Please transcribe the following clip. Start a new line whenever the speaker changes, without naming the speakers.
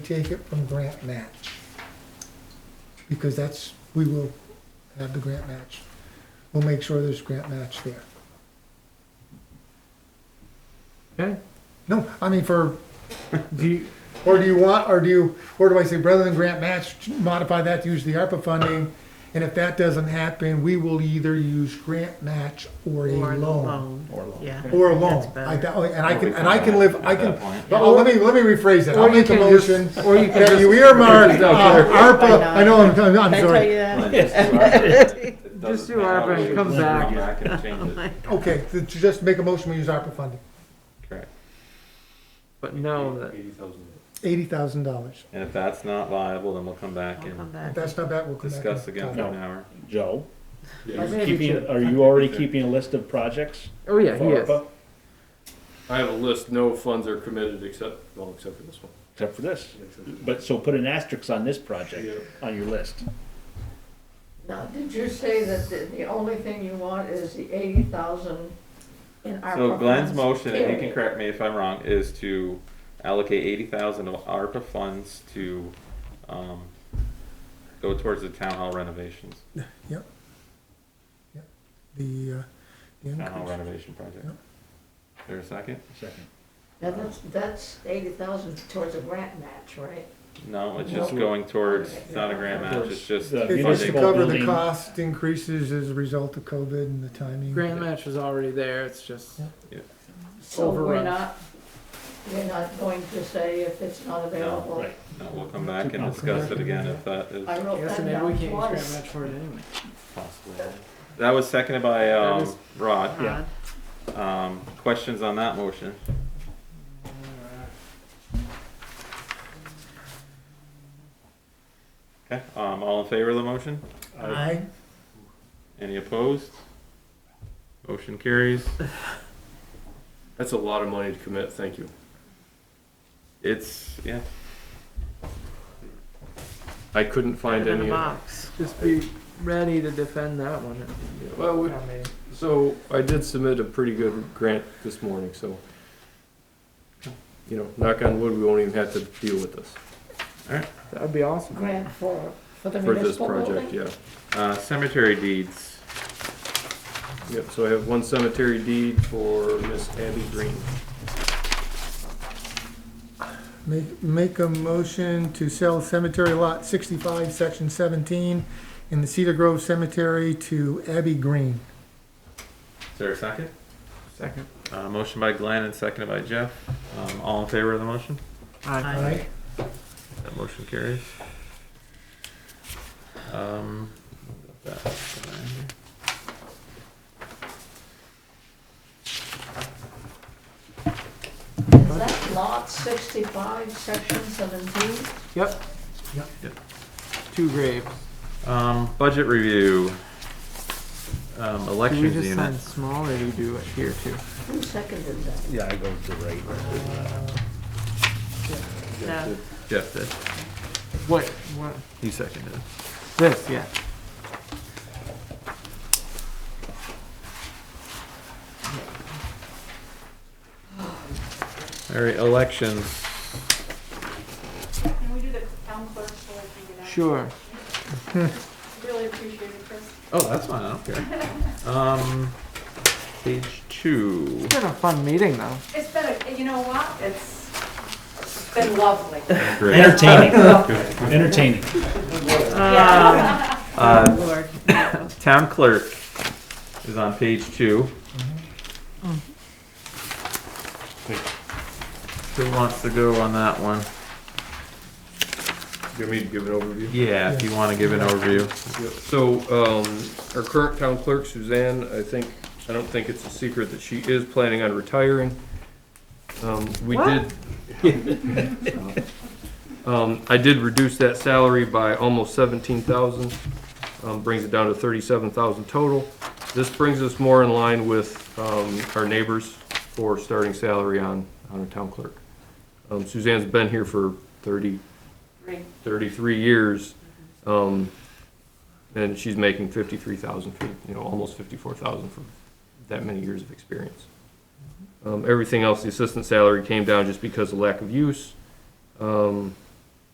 take it from grant match. Because that's, we will have the grant match. We'll make sure there's grant match there.
Okay,
No, I mean for,
do you,
or do you want, or do you, or do I say, rather than grant match, modify that to use the ARPA funding? And if that doesn't happen, we will either use grant match or a
Or
loan.
loan,
Or loan.
yeah.
Or a
That's
loan.
better.
I, doubt- and I can, and I can live, I
At that
can,
point.
but oh, let me, let me rephrase it.
Or
I'll
you
make a
can just-
motion
or you can
that
just,
you earmark,
Just don't
uh, ARPA, I know, I'm, I'm
Did I
sorry.
tell you that?
It doesn't
Just do
matter.
ARPA and come back.
Yeah, I can change it.
Okay, to to just make a motion, we use ARPA funding,
Correct.
but no, that,
eighty thousand dollars.
And if that's not viable, then we'll come back
I'll come
and
If
back.
that's not bad, we'll come back.
discuss
and
again
talk.
for
No.
an hour.
Joe,
I may be
keeping,
too-
are you already keeping a list of projects?
oh yeah, he
for
is.
ARPA?
I have a list, no funds are committed except, well, except for this one.
Except for this. But, so put an asterisk on this
Yeah.
project, on your list.
Now, did you say that the, the only thing you want is the eighty thousand in ARPA
So Glenn's
funds?
motion, and you can
Period.
correct me if I'm wrong, is to allocate eighty thousand of ARPA funds to, um, go towards the town hall renovations,
Yep. Yep. The, uh, the
town hall
increase.
renovation project.
Yep.
Is There a second?
Second.
Now, that's, that's eighty thousand towards a grant match, right?
No, it's just going towards, it's not a grant match, it's just
The
It's just to
municipal
funding.
cover the
building.
cost increases as a result of COVID and the timing.
Grand match was already there, it's just,
So we're
Overrun.
not, we're not going to say if it's not available.
Right.
No, we'll come back and discuss it again if that is
I wrote
yes,
that
and maybe we
down
can't use grand
twice.
match for it anyway.
possible. That was seconded by,
That
um,
is-
Rod.
Yeah.
Um, questions on that motion? Okay, um, all in favor of the motion?
I,
Any opposed? Motion carries.
That's a lot of money to commit, thank you.
It's, yeah,
I couldn't find
Put it in a
any.
box.
Just be ready to defend that one.
Well, we-
I mean,
So I did submit a pretty good grant this morning, so, you know, knock on wood, we won't even have to deal with this
That would be awesome.
Grant for, for the
for this
municipal
project,
building?
yeah.
uh, cemetery deeds.
Yep, so I have one cemetery deed for Miss Abby Green.
make, make a motion to sell cemetery lot sixty-five, section seventeen in the Cedar Grove Cemetery to Abby Green.
Is there a second?
Second.
Uh, motion by Glenn and seconded by Jeff. Um, all in favor of the motion?
Aye.
Aye.
That motion carries. Um, that-
Is that lot sixty-five, section seventeen?
Yep.
Yep.
Yep.
Two graves.
Um, budget review. Um,
Do you
elections
just
unit.
sign small or do you do it here too?
Who seconded that?
Yeah, I go to right.
No,
Jeff did.
What, what,
He seconded. it.
this, yeah.
All right, elections.
Can we do the town clerk so I can get out?
Sure.
Really appreciate it, Chris.
Oh, that's fine. I don't care. Um, page two.
It's been a fun meeting though.
It's been, a- you know what, it's it's been lovely.
Great.
Entertaining, entertaining.
Um,
Uh,
Lord.
town clerk is on page two. Who wants to go on that one?
You want me to give an overview?
Yeah, if you want to give an overview.
So, um, our current town clerk Suzanne, I think, I don't think it's a secret that she is planning on retiring. Um, we did. Um, I did reduce that salary by almost seventeen thousand, um, brings it down to thirty-seven thousand total. This brings us more in line with, um, our neighbors for starting salary on, on a town clerk. Um, Suzanne's been here for thirty,
Great.
33 years, um, and she's making 53,000 for, you know, almost 54,000 for that many years of experience. Um, everything else, the assistant salary came down just because of lack of use. Um,